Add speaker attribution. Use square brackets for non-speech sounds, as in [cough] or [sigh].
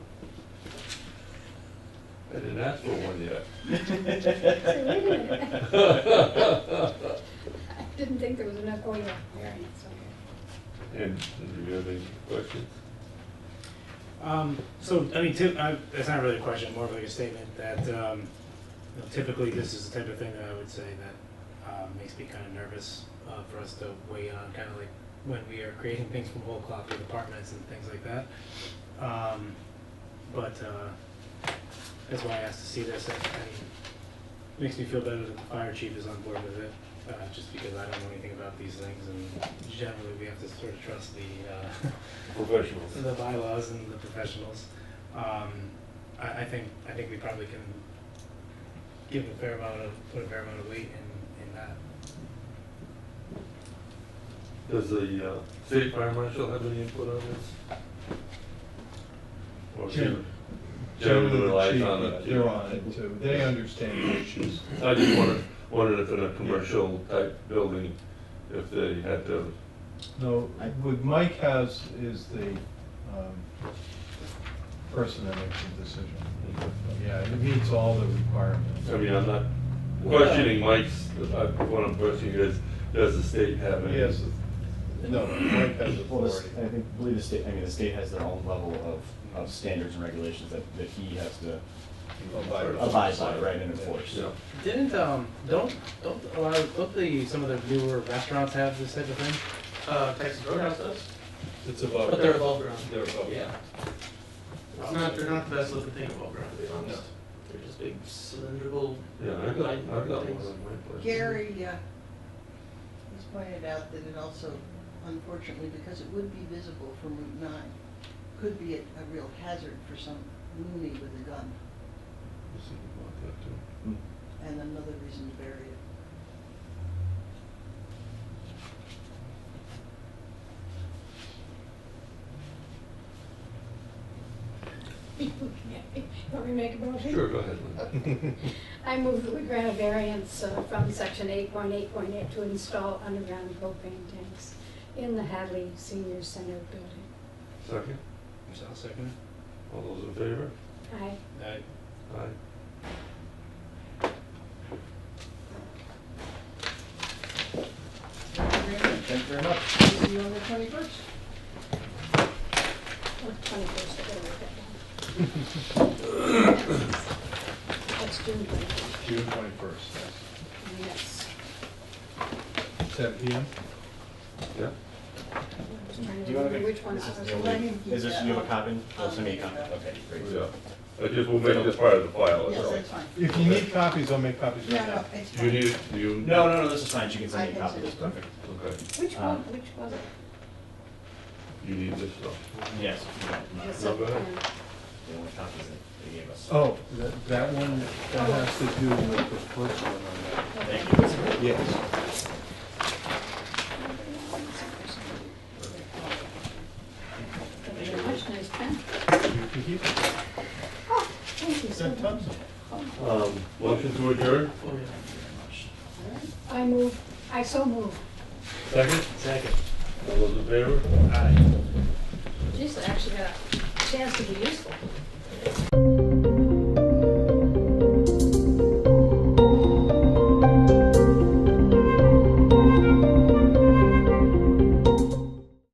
Speaker 1: I didn't ask for one yet.
Speaker 2: I didn't think there was enough, oh yeah, variance, okay.
Speaker 1: And, and do you have any questions?
Speaker 3: Um, so, I mean, tip, I, that's not really a question, more of like a statement that, um, you know, typically this is the type of thing that I would say that, um, makes me kind of nervous, uh, for us to weigh on, kind of like when we are creating things from whole cloth with apartments and things like that. Um, but, uh, that's why I asked to see this, and, and makes me feel better that the fire chief is on board with it, uh, just because I don't know anything about these things, and generally we have to sort of trust the, uh,
Speaker 1: Professionals.
Speaker 3: the bylaws and the professionals. Um, I, I think, I think we probably can give a fair amount of, put a fair amount of weight in, in that.
Speaker 1: Does the, uh, state fire marshal have any input on this? Or
Speaker 4: Jim.
Speaker 1: Jim relies
Speaker 4: Chief,
Speaker 1: on it.
Speaker 4: They're on it too, they understand the issues.
Speaker 1: I just wondered, wondered if in a commercial type building, if they had to,
Speaker 4: No, what Mike has is the um, person that makes the decision. Yeah, it meets all the requirements.
Speaker 1: I mean, I'm not questioning Mike's, but I, what I'm questioning is, does the state have any?
Speaker 4: Yes, no, Mike has
Speaker 5: Well, this-
Speaker 4: authority.
Speaker 5: I think, believe the state, I mean, the state has their own level of, of standards and regulations that, that he has to
Speaker 4: Abide by.
Speaker 5: abide by, right, and enforce.
Speaker 1: Yeah.
Speaker 3: Didn't, um, don't, don't allow, don't the, some of the newer restaurants have this type of thing?
Speaker 6: Uh, Texas Roadhouse does,
Speaker 4: It's above.
Speaker 6: but they're above ground.
Speaker 4: They're above.
Speaker 6: Yeah. It's not, they're
Speaker 4: [laughs]
Speaker 6: not the best looking thing above ground, to be honest. They're just big cylindrical.
Speaker 1: Yeah, I've got, I've got one in
Speaker 6: things.
Speaker 1: my place.
Speaker 7: Gary uh, has pointed out that it also, unfortunately, because it would be visible from Route 9, could be a a real hazard for some loony with a gun,
Speaker 1: Let's see about that, too.
Speaker 7: and another reason to bury it.
Speaker 2: Okay, [laughs] Want me to make a motion?
Speaker 1: Sure, go ahead, Lynn.
Speaker 2: Okay. I move that we grant a variance uh, from section eight point eight point eight to install underground propane tanks in the Hadley Senior Center building.
Speaker 1: Second,
Speaker 3: So I'll second
Speaker 1: all those in favor?
Speaker 2: Aye.
Speaker 3: it. I,
Speaker 1: Aye.
Speaker 5: Thank you very much.
Speaker 7: See you on the 21st.
Speaker 2: Or twenty-first, I gotta write that down. [coughs] That's June twenty-first.
Speaker 4: June twenty-first, yes.
Speaker 2: Yes.
Speaker 4: Seven P M?
Speaker 1: Yeah?
Speaker 2: I was trying to
Speaker 5: Do you want to
Speaker 2: remember
Speaker 5: make?
Speaker 2: which one's
Speaker 5: this is
Speaker 2: ours.
Speaker 5: the
Speaker 7: Let
Speaker 5: only-
Speaker 7: him keep
Speaker 5: Is this,
Speaker 7: that.
Speaker 5: you have a copy? Oh,
Speaker 7: I'll
Speaker 5: send me a
Speaker 7: make
Speaker 5: copy,
Speaker 7: that.
Speaker 5: okay, great.
Speaker 1: Yeah. I just will make this part of the file, that's
Speaker 7: Yes,
Speaker 1: all.
Speaker 7: that's fine.
Speaker 4: If you need copies, I'll make copies
Speaker 7: No,
Speaker 4: right
Speaker 7: no,
Speaker 4: now.
Speaker 7: it's
Speaker 1: Oh, Do you
Speaker 7: fine.
Speaker 1: need, do you?
Speaker 5: No, no, no, this is fine, you can
Speaker 7: I
Speaker 5: send me a
Speaker 7: can
Speaker 5: copy,
Speaker 7: send
Speaker 5: that's
Speaker 7: it.
Speaker 5: perfect.
Speaker 1: Okay,
Speaker 7: Which
Speaker 5: Uh,
Speaker 7: one, which was it?
Speaker 1: you need this stuff.
Speaker 5: Yes.
Speaker 2: Yes,
Speaker 1: No, go ahead.
Speaker 2: um,
Speaker 5: The only copies that they gave us.
Speaker 4: Oh, that, that one, that has to do with the first one on
Speaker 5: Thank you.
Speaker 4: that. Yes.
Speaker 2: Thank you very much, nice pen.
Speaker 4: You can keep it.
Speaker 2: Oh, thank you so
Speaker 4: Send
Speaker 2: much.
Speaker 4: tons.
Speaker 1: Um, motion to adjourn?
Speaker 6: Oh, yeah, very
Speaker 2: I move, I so move.
Speaker 1: Second?
Speaker 3: second.
Speaker 1: All those in favor?
Speaker 3: Aye.
Speaker 2: Jeez, I actually got a chance to be useful.